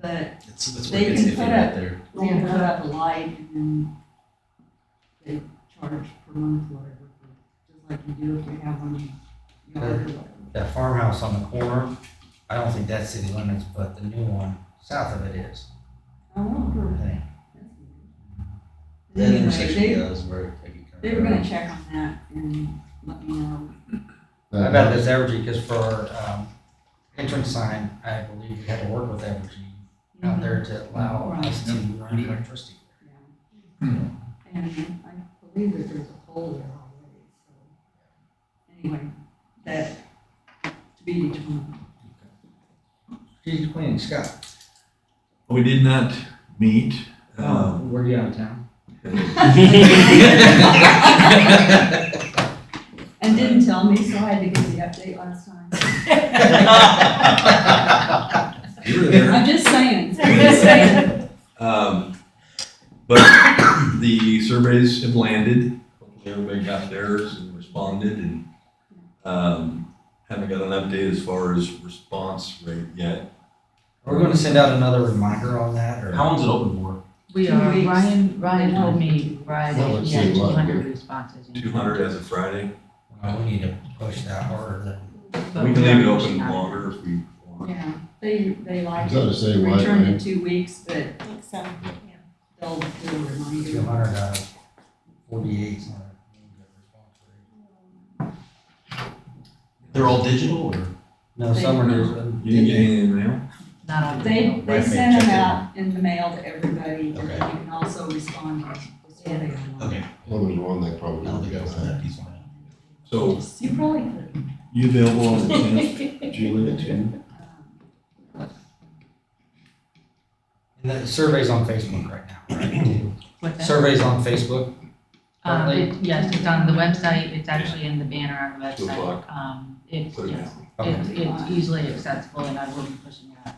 but That's, that's They where it gets can iffy put right up- there. they can put up a light and then they charge per month, whatever, for- just like you do if you have one, you know, or whatever. That farmhouse on the corner, I don't think that's city limits, but the new one south of it is. I wonder. I think. That Anyway, intersection, they- yeah, is where it can They were gonna check on that and let me know. I bet that's Evergy, because for um, entrance sign, I believe we had to work with Evergy Mm-hmm. out there to allow us to run electricity. Yeah. And I believe that there's a hole there already, so. Anyway, that to be determined. Strategic planning, Scott. We did not meet. Um, Uh, Were you out of town? And didn't tell me, so I had to give the update last time. You were there. I'm just saying, I'm just saying. Um, but the surveys have landed. Hopefully everybody got theirs and responded and, um, haven't got an update as far as response rate yet. We're gonna send out another reminder on that, or? How long's it open for? We Two are, weeks. Ryan, Ryan They told want me Well, Friday, let's yeah, see two what- hundred responses. in Two hundred as of Friday. Uh, We need to push that harder than. But We can leave it are open pushing out. longer if we want. Yeah, they, they I'm like trying it. to say why. Return in two weeks, but I think so. they'll do a Two reminder. hundred out of forty-eight. is not a good response rate. They're all digital or? No, some are new. You didn't get any in the mail? Not on the They, mail. they Right, send check them it. out in the mail to everybody, and you Okay. can also respond to the survey online. Okay. Well, there's one they probably. I don't think I was on that piece. of it. So You probably could. you available on the tenth, Julie, at ten? um, And the survey's on Facebook right now, right? What's that? Survey's on Facebook. Um, currently? it, yes, it's on the website, it's actually in the banner on the Two website. o'clock. Um, it's, Put it it's, Okay. it's it's easily accessible and I will be pushing it out.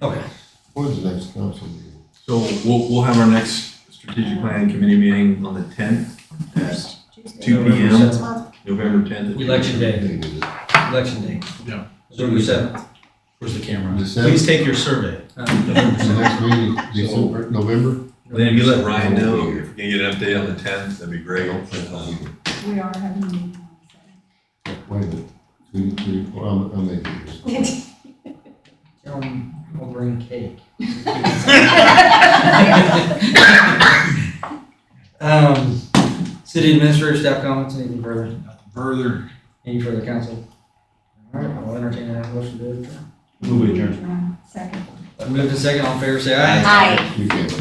Okay. When's the next council meeting? So we'll, we'll have our next strategic planning committee meeting on the tenth, at Tuesday. Two November PM. seventh. November tenth. Election day, Meeting is- election day. Yeah. November seventh. Where's the camera? Just that- Please take your survey. Is the next meeting December, November? Then if you let Ryan know, if you can get an update on the tenth, that'd be great. Um, We are having a meeting on the second. Wait a minute, two, three, four, I'm, I'm making this. Tell them I'll bring cake. Um, city administrator staff comments, anything further? Further. Any further council? All right, I'll entertain a motion to adjourn. Move adjourned. Adjourn. Second. Moved and second, all in favor, say aye. You can.